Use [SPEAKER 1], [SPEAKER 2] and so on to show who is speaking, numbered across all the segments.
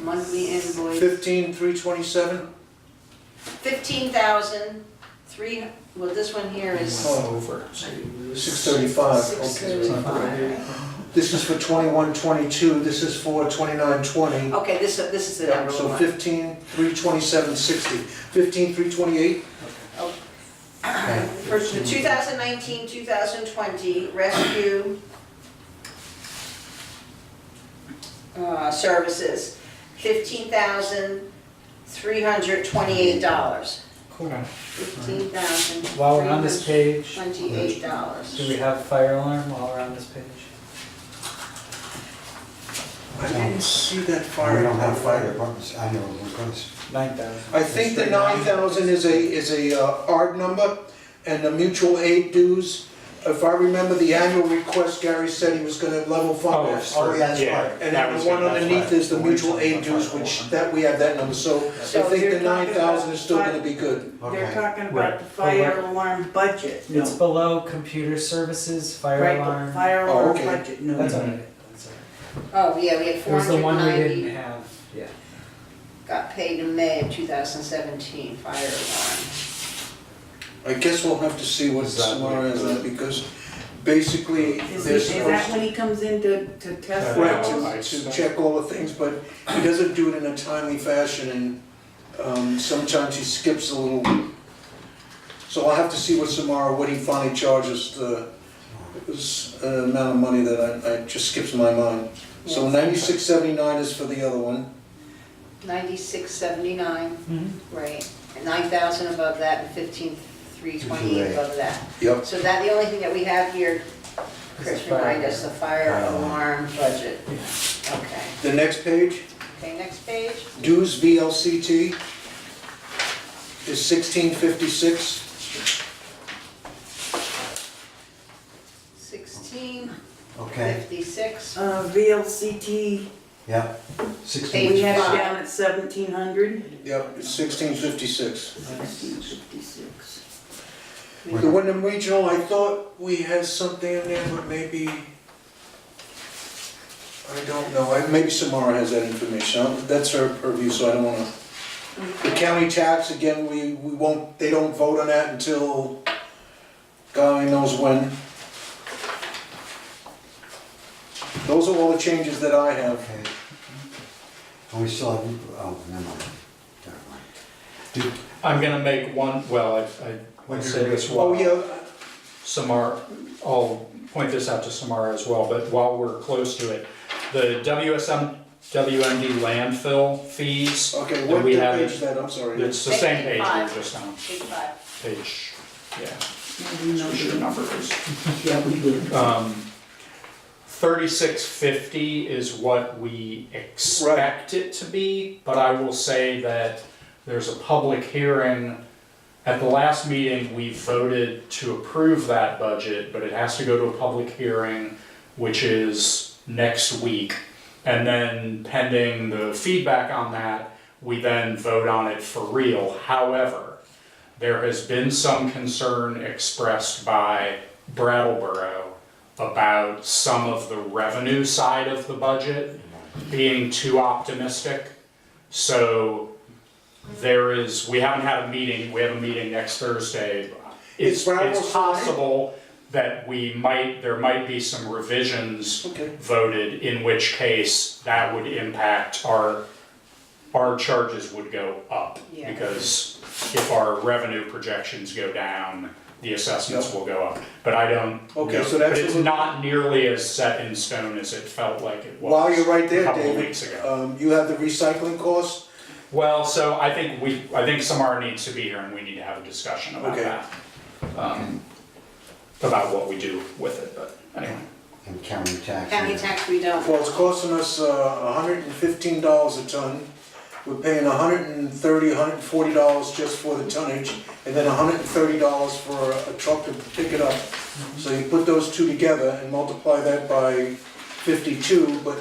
[SPEAKER 1] monthly invoice,
[SPEAKER 2] Fifteen, three twenty-seven?
[SPEAKER 1] fifteen thousand, three, well, this one here is
[SPEAKER 2] Oh, over. Six thirty-five,
[SPEAKER 1] six
[SPEAKER 2] Oh, okay. it's not right.
[SPEAKER 1] thirty-five.
[SPEAKER 2] This is for twenty-one, twenty-two, this is for twenty-nine, twenty.
[SPEAKER 1] Okay, this, uh, this is the number
[SPEAKER 2] So
[SPEAKER 1] one.
[SPEAKER 2] fifteen, three twenty-seven, sixty. Fifteen, three twenty-eight?
[SPEAKER 1] For the 2019, 2020 rescue uh, services, $15,328.
[SPEAKER 3] Cool.
[SPEAKER 1] $15,328.
[SPEAKER 3] While we're on this page, do we
[SPEAKER 1] $28.
[SPEAKER 3] have fire alarm while we're on this page?
[SPEAKER 2] I didn't see that far.
[SPEAKER 4] We don't have fire departments, I know, because
[SPEAKER 3] Nine thousand.
[SPEAKER 2] I think the nine thousand is a, is a uh, ARD number, and the mutual aid dues. If I remember the annual request, Gary said he was gonna level fund that.
[SPEAKER 4] Oh, yeah, that's
[SPEAKER 5] Yeah.
[SPEAKER 4] right.
[SPEAKER 2] And
[SPEAKER 5] That
[SPEAKER 2] then
[SPEAKER 5] was
[SPEAKER 2] the one
[SPEAKER 5] good, that's
[SPEAKER 2] underneath
[SPEAKER 5] right.
[SPEAKER 2] is the
[SPEAKER 4] The one
[SPEAKER 2] mutual aid
[SPEAKER 4] twenty-five
[SPEAKER 2] dues, which,
[SPEAKER 4] one.
[SPEAKER 2] that, we have that number, so I
[SPEAKER 1] So
[SPEAKER 2] think the
[SPEAKER 6] you're talking
[SPEAKER 2] nine thousand
[SPEAKER 6] about
[SPEAKER 2] is still gonna
[SPEAKER 6] five-
[SPEAKER 2] be good.
[SPEAKER 6] They're
[SPEAKER 4] okay.
[SPEAKER 6] talking
[SPEAKER 3] Right.
[SPEAKER 6] about the fire alarm budget.
[SPEAKER 3] It's below computer services, fire
[SPEAKER 6] Right,
[SPEAKER 3] alarm.
[SPEAKER 6] but fire
[SPEAKER 2] Oh,
[SPEAKER 6] alarm
[SPEAKER 2] okay.
[SPEAKER 6] budget, no.
[SPEAKER 3] That's all right, that's all right.
[SPEAKER 1] Oh, yeah, we had
[SPEAKER 3] It was the one we
[SPEAKER 1] 490,
[SPEAKER 3] didn't have, yeah.
[SPEAKER 1] got paid in May of 2017, fire alarm.
[SPEAKER 2] I guess we'll have to see what
[SPEAKER 4] Is that
[SPEAKER 2] tomorrow
[SPEAKER 4] what-
[SPEAKER 2] is, uh, because basically,
[SPEAKER 6] Is he,
[SPEAKER 2] they're
[SPEAKER 6] is that
[SPEAKER 2] supposed,
[SPEAKER 6] when he comes in to, to test?
[SPEAKER 2] right,
[SPEAKER 6] those?
[SPEAKER 2] to, to check all the things, but he doesn't do it in a timely fashion, and, um, sometimes he skips a little. So I'll have to see what tomorrow, what he finally charges, the, this, uh, amount of money that I, I, just skips my mind. So
[SPEAKER 1] Yes.
[SPEAKER 2] ninety-six seventy-nine is for the other one.
[SPEAKER 1] 9679.
[SPEAKER 6] Mm-hmm.
[SPEAKER 1] Right, and nine thousand above that and fifteen, three twenty-eight above that.
[SPEAKER 2] Yep.
[SPEAKER 1] So that, the only thing that we have here, Chris,
[SPEAKER 3] Is the fire
[SPEAKER 1] remind us, the fire
[SPEAKER 4] alarm.
[SPEAKER 1] alarm budget.
[SPEAKER 3] Yeah.
[SPEAKER 1] Okay,
[SPEAKER 2] The next page,
[SPEAKER 1] okay, next page,
[SPEAKER 2] dues VLCT is sixteen fifty-six.
[SPEAKER 1] sixteen
[SPEAKER 4] Okay,
[SPEAKER 1] fifty-six.
[SPEAKER 6] Uh, VLCT,
[SPEAKER 4] yeah,
[SPEAKER 6] we
[SPEAKER 4] sixteen.
[SPEAKER 6] had
[SPEAKER 1] Five.
[SPEAKER 6] it down at seventeen hundred.
[SPEAKER 2] Yep, sixteen fifty-six.
[SPEAKER 6] Sixteen fifty-six.
[SPEAKER 2] The Wyndham Regional, I thought we had something in there, but maybe, I don't know, I- maybe Samara has that information, I- that's her purview, so I don't wanna. The county tax, again, we, we won't, they don't vote on that until, God only knows when. Those are all the changes that I have.
[SPEAKER 4] Okay. And we still have, oh, never mind. Never mind.
[SPEAKER 5] I'm gonna make one, well, I, I
[SPEAKER 4] When
[SPEAKER 5] would
[SPEAKER 4] you're
[SPEAKER 5] say this
[SPEAKER 2] Oh,
[SPEAKER 5] while
[SPEAKER 2] yeah,
[SPEAKER 5] Samar, I'll point this out to Samara as well, but while we're close to it, the WSM, WMD landfill fees,
[SPEAKER 2] okay,
[SPEAKER 5] And
[SPEAKER 2] what
[SPEAKER 5] we
[SPEAKER 2] did
[SPEAKER 5] have
[SPEAKER 2] page
[SPEAKER 5] it-
[SPEAKER 2] that, I'm sorry.
[SPEAKER 5] it's the same page we were
[SPEAKER 1] 55.
[SPEAKER 5] just on,
[SPEAKER 1] Big five.
[SPEAKER 5] page, yeah,
[SPEAKER 6] You know,
[SPEAKER 5] what your number is.
[SPEAKER 6] yeah, we did.
[SPEAKER 5] Um, thirty-six fifty is what we expect it to be, but I will say that there's a public hearing. At the last meeting, we voted to approve that budget, but it has to go to a public hearing, which is next week. And then pending the feedback on that, we then vote on it for real. However, there has been some concern expressed by Brattleboro about some of the revenue side of the budget being too optimistic. So there is, we haven't had a meeting, we have a meeting next Thursday.
[SPEAKER 2] Is
[SPEAKER 5] It's,
[SPEAKER 2] Brattleboro
[SPEAKER 5] it's possible that we might, there might be some revisions
[SPEAKER 2] Okay.
[SPEAKER 5] voted, in which case that would impact our, our charges would go up.
[SPEAKER 1] Yeah.
[SPEAKER 5] Because if our revenue projections go down, the assessments will go up. But I don't,
[SPEAKER 2] Okay,
[SPEAKER 5] know-
[SPEAKER 2] so that's
[SPEAKER 5] but it's
[SPEAKER 2] a-
[SPEAKER 5] not nearly as set in stone as it felt like it was.
[SPEAKER 2] While you're right
[SPEAKER 5] a
[SPEAKER 2] there,
[SPEAKER 5] couple of
[SPEAKER 2] David,
[SPEAKER 5] weeks ago.
[SPEAKER 2] um, you have the recycling cost,
[SPEAKER 5] Well, so I think we, I think Samara needs to be here and we need to have a discussion about
[SPEAKER 2] Okay.
[SPEAKER 5] that. Um, About what we do with it, but anyway.
[SPEAKER 4] And county tax.
[SPEAKER 1] County tax, we don't.
[SPEAKER 2] well, it's costing us, uh, hundred and fifteen dollars a ton. We're paying $130, hundred and thirty, hundred and forty dollars just for the tonnage, and then hundred and thirty dollars for a truck to pick it up.
[SPEAKER 5] Mm-hmm.
[SPEAKER 2] So you put those two together and multiply that by fifty-two, but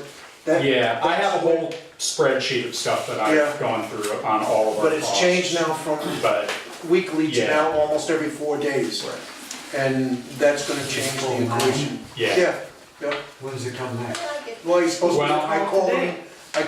[SPEAKER 2] that.
[SPEAKER 5] Yeah, I have a
[SPEAKER 2] that's-
[SPEAKER 5] whole spreadsheet of stuff that
[SPEAKER 2] Yeah.
[SPEAKER 5] I've gone through on all of our
[SPEAKER 2] But it's changed
[SPEAKER 5] costs,
[SPEAKER 2] now from
[SPEAKER 5] But,
[SPEAKER 2] weekly to
[SPEAKER 5] Yeah.
[SPEAKER 2] now almost every four days, and that's gonna change the equation.
[SPEAKER 5] yeah.
[SPEAKER 2] Yeah, yeah,
[SPEAKER 4] When's it come back?
[SPEAKER 1] Well, I get-
[SPEAKER 2] well, he's supposed to,
[SPEAKER 5] Well-
[SPEAKER 2] I called him,
[SPEAKER 6] Today.